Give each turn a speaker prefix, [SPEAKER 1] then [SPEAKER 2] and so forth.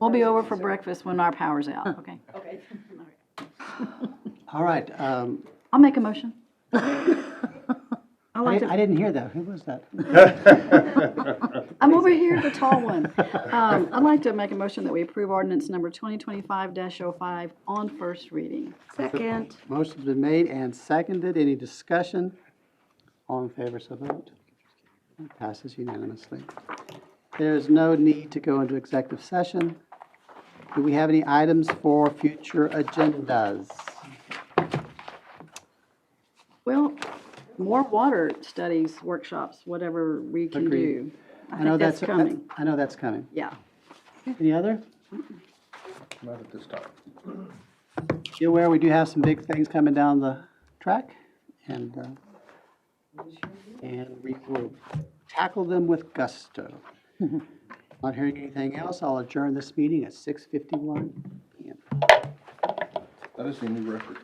[SPEAKER 1] We'll be over for breakfast when our power's out, okay?
[SPEAKER 2] Okay.
[SPEAKER 3] All right, um,
[SPEAKER 1] I'll make a motion. I
[SPEAKER 3] I
[SPEAKER 1] like to,
[SPEAKER 3] I didn't hear that. Who was that?
[SPEAKER 1] I'm over here, the tall one. Um, I'd like to make a motion that we approve ordinance number 2025-05 on first reading.
[SPEAKER 2] Second.
[SPEAKER 3] Motion's been made and seconded. Any discussion? All in favor, so vote. That Passes unanimously. There is no need to go into executive session. Do we have any items for future agendas?
[SPEAKER 1] Well, more water studies, workshops, whatever we can
[SPEAKER 3] Agreed.
[SPEAKER 1] do. I
[SPEAKER 3] know
[SPEAKER 1] think that's coming,
[SPEAKER 3] I know that's coming.
[SPEAKER 1] yeah.
[SPEAKER 3] Any other?
[SPEAKER 4] Not at this time.
[SPEAKER 3] Be aware, we do have some big things coming down the track, and, uh, and we will tackle them with gusto. Not hearing anything else, I'll adjourn this meeting at 6:51 PM.
[SPEAKER 4] That is a new record.